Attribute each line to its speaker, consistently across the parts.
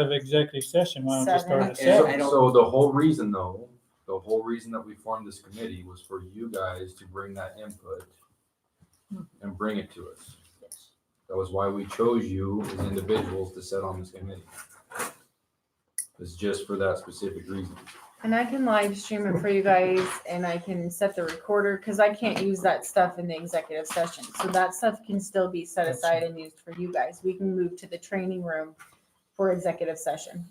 Speaker 1: of executive session, why don't you start
Speaker 2: Seven.
Speaker 1: at
Speaker 2: Yeah,
Speaker 3: So,
Speaker 1: seven?
Speaker 2: I don't-
Speaker 3: so the whole reason though, the whole reason that we formed this committee was for you guys to bring that input and bring it to us. That was why we chose you as individuals to sit on this committee. It's just for that specific reason.
Speaker 4: And I can live stream it for you guys and I can set the recorder because I can't use that stuff in the executive session. So that stuff can still be set aside and used for you guys. We can move to the training room for executive session.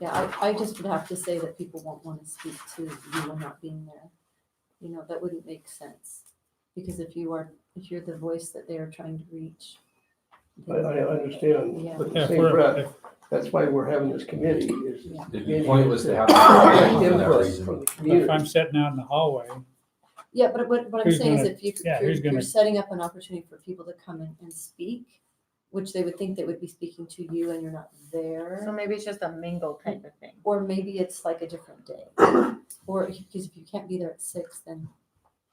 Speaker 5: Yeah, I, I just would have to say that people won't want to speak to you and not being there. You know, that wouldn't make sense, because if you are, if you're the voice that they are trying to reach.
Speaker 6: I, I
Speaker 5: then-
Speaker 6: understand,
Speaker 5: Yeah.
Speaker 6: but at
Speaker 1: Yeah,
Speaker 6: the
Speaker 1: if
Speaker 6: same
Speaker 1: we're-
Speaker 6: breath,
Speaker 1: if-
Speaker 6: that's why we're having this committee is. is
Speaker 3: It'd be pointless to have. a committee for that
Speaker 6: Input
Speaker 3: reason.
Speaker 6: from the community.
Speaker 1: If I'm sitting out in the hallway,
Speaker 5: Yeah, but what, what I'm
Speaker 1: Who's
Speaker 5: saying is
Speaker 1: gonna-
Speaker 5: if you,
Speaker 1: yeah,
Speaker 5: you're,
Speaker 1: who's gonna-
Speaker 5: you're setting up an opportunity for people to come in and speak, which they would think they would be speaking to you and you're not
Speaker 4: So
Speaker 5: there.
Speaker 4: maybe it's just a mingle type of thing.
Speaker 5: Or maybe it's like a different day, or, because if you can't be there at six, then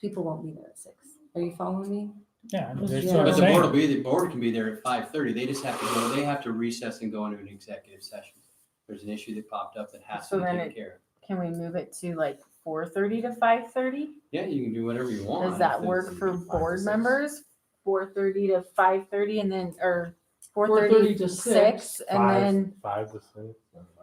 Speaker 5: people won't be there at six. Are you following me?
Speaker 1: yeah.
Speaker 5: Yeah.
Speaker 1: that's what I'm
Speaker 7: But the board will
Speaker 1: saying.
Speaker 7: be, the board can be there at five thirty, they just have to go, they have to recess and go into an executive session. There's an issue that popped up that has to
Speaker 4: So
Speaker 7: be
Speaker 4: then
Speaker 7: taken
Speaker 4: it-
Speaker 7: care of.
Speaker 4: Can we move it to like four thirty to five thirty?
Speaker 7: Yeah, you can do whatever you want.
Speaker 4: Does that
Speaker 7: If
Speaker 4: work
Speaker 7: it's
Speaker 4: for
Speaker 7: five to
Speaker 4: board
Speaker 7: six.
Speaker 4: members? Four thirty to five thirty and then, or four
Speaker 5: 4:30
Speaker 4: thirty
Speaker 5: to
Speaker 4: to six and then,
Speaker 8: Five to six.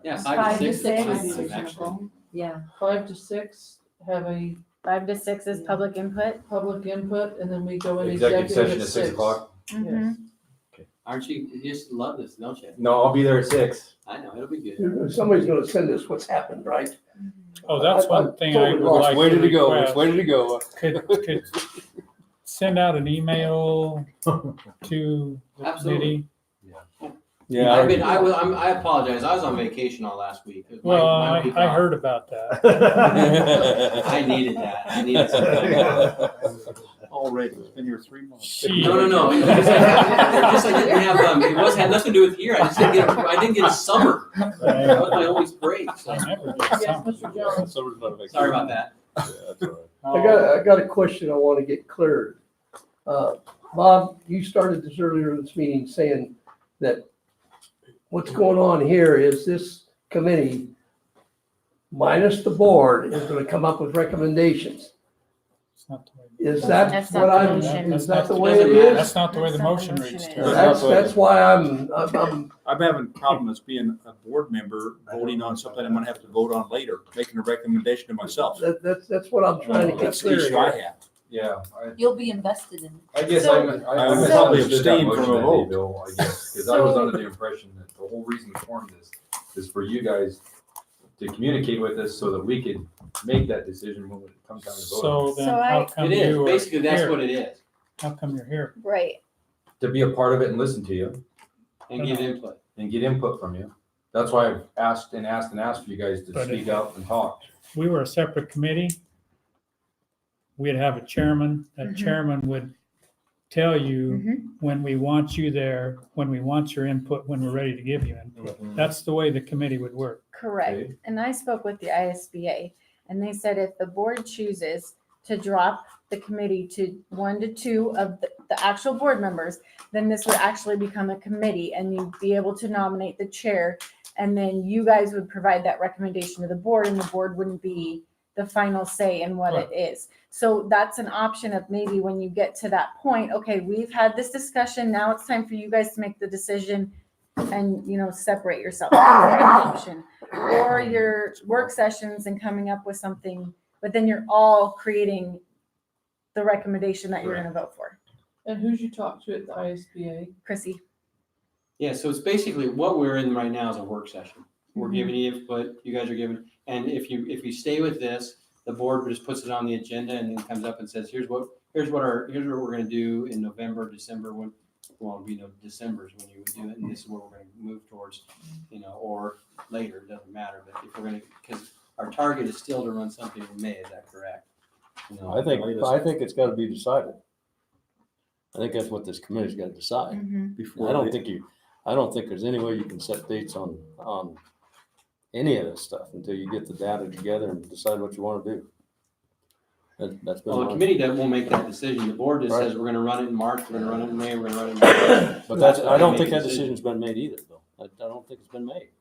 Speaker 7: Yeah,
Speaker 4: Five
Speaker 7: five
Speaker 4: to
Speaker 7: to six.
Speaker 4: six.
Speaker 7: is
Speaker 4: Five
Speaker 7: fine,
Speaker 4: to
Speaker 7: actually.
Speaker 5: Yeah,
Speaker 9: five to six, have a
Speaker 4: five to six is public input?
Speaker 9: public input, and then we go into
Speaker 3: Executive session at six
Speaker 9: six.
Speaker 3: o'clock?
Speaker 4: Mhm.
Speaker 7: Aren't you, you just love this, don't you?
Speaker 3: No, I'll be there at six.
Speaker 7: I know, it'll be good.
Speaker 6: If Somebody's gonna send us what's happened, right?
Speaker 1: Oh, that's one thing I would like.
Speaker 8: Where did it go?
Speaker 1: request.
Speaker 8: Which way did it go?
Speaker 1: Could, could send out an email to the
Speaker 7: Absolutely.
Speaker 1: committee.
Speaker 8: Yeah.
Speaker 7: I've been, I was, I'm, I apologize, I was on vacation all last week. It was my-
Speaker 1: Well,
Speaker 7: my
Speaker 1: I,
Speaker 7: week
Speaker 1: I
Speaker 7: off.
Speaker 1: heard about that.
Speaker 7: I needed that, I needed something.
Speaker 8: Already, it's been here three months.
Speaker 1: She-
Speaker 7: No, no, no. It was Just I just I didn't have, um, it was, had nothing to do with here. I just didn't get, I didn't get a summer. That was my only break. So
Speaker 1: I never did
Speaker 9: Yes,
Speaker 1: something.
Speaker 9: Mr. Jones.
Speaker 8: Summer's not a vacation.
Speaker 7: sorry about that.
Speaker 8: Yeah, that's all right.
Speaker 6: I
Speaker 1: Oh.
Speaker 6: got, I got a question I want to get cleared. Uh, Bob, you started this earlier in this meeting saying that what's going on here is this committee minus the board is going to come up with recommendations.
Speaker 1: It's not the way-
Speaker 6: Is that
Speaker 4: That's not
Speaker 6: what
Speaker 4: the
Speaker 6: I'm,
Speaker 4: motion.
Speaker 1: That's
Speaker 6: is that
Speaker 1: not
Speaker 6: the way it
Speaker 7: doesn't matter.
Speaker 6: is?
Speaker 1: That's not the way the
Speaker 4: That's not
Speaker 1: motion
Speaker 4: the
Speaker 1: reads.
Speaker 4: motion
Speaker 1: Terry.
Speaker 8: is.
Speaker 6: That's, that's why I'm, I'm- I'm,
Speaker 10: I'm having problems being a board member voting on something I'm gonna have to vote on later, making a recommendation to myself.
Speaker 6: that- that's, that's what I'm trying to get
Speaker 10: That's the
Speaker 6: clear
Speaker 10: issue I
Speaker 6: here.
Speaker 10: have.
Speaker 3: Yeah, I,
Speaker 5: you'll be invested in.
Speaker 3: I guess
Speaker 4: So-
Speaker 3: I'm- I.
Speaker 10: I
Speaker 3: I probably
Speaker 10: would probably
Speaker 3: understood that
Speaker 10: abstain
Speaker 3: motion
Speaker 10: from a
Speaker 3: that day,
Speaker 10: vote.
Speaker 3: Bill, I guess, because I was
Speaker 4: So-
Speaker 3: under the impression that the whole reason we formed this is for you guys to communicate with us so that we could make that decision when it comes time to vote.
Speaker 1: So then
Speaker 4: So
Speaker 1: how
Speaker 4: I-
Speaker 1: come
Speaker 7: It
Speaker 1: you
Speaker 7: is,
Speaker 1: were
Speaker 7: basically, that's what
Speaker 1: here?
Speaker 7: it is.
Speaker 1: How come you're here?
Speaker 4: Right.
Speaker 3: To be a part of it and listen to you
Speaker 7: And give
Speaker 1: Uh-huh.
Speaker 7: input.
Speaker 3: and get input from you. That's why I've asked and asked and asked for you guys to
Speaker 1: But if-
Speaker 3: speak out and talk.
Speaker 1: we were a separate committee, we'd have a chairman. That
Speaker 4: Mhm.
Speaker 1: chairman would tell you when we want you there, when we want your input, when we're ready to give you input. That's the way the committee would work.
Speaker 4: Correct.
Speaker 3: Okay.
Speaker 4: And I spoke with the ISBA and they said if the board chooses to drop the committee to one to two of the, the actual board members, then this would actually become a committee and you'd be able to nominate the chair. And then you guys would provide that recommendation to the board and the board wouldn't be the final say in what it is. So that's an option of maybe when you get to that point, okay, we've had this discussion. Now it's time for you guys to make the decision and, you know, separate yourself. That's an option or your work sessions and coming up with something, but then you're all creating the recommendation that you're gonna vote for.
Speaker 9: And who'd you talk to at the ISBA?
Speaker 4: Chrissy,
Speaker 7: Yeah, so it's basically what we're in right now is a work session. We're
Speaker 4: Mhm.
Speaker 1: Mm-hmm.
Speaker 7: giving you input, you guys are giving, and if you, if you stay with this, the board just puts it on the agenda and then comes up and says, here's what, here's what our, here's what we're gonna do in November, December, when, well, you know, December's when you would do it, and this is what we're gonna move towards, you know, or later, it doesn't matter, but if we're gonna, because our target is still to run something in May, is that correct? You know,
Speaker 8: I think,
Speaker 7: latest-
Speaker 8: I think it's gotta be decided. I think that's what this committee's gotta decide.
Speaker 4: Mm-hmm.
Speaker 10: Before
Speaker 8: I don't
Speaker 10: they-
Speaker 8: think you, I don't think there's any way you can set dates on, on any of this stuff until you get the data together and decide what you wanna do. That, that's been.
Speaker 7: Well, the
Speaker 8: my-
Speaker 7: committee doesn't, won't make that decision, the board just
Speaker 8: Right.
Speaker 7: says, we're gonna run it in March, we're gonna run it in May, we're gonna run it in.
Speaker 8: But that's, I don't
Speaker 7: Make
Speaker 8: think
Speaker 7: a
Speaker 8: that
Speaker 7: decision.
Speaker 8: decision's been made either, though. I, I don't think it's been made.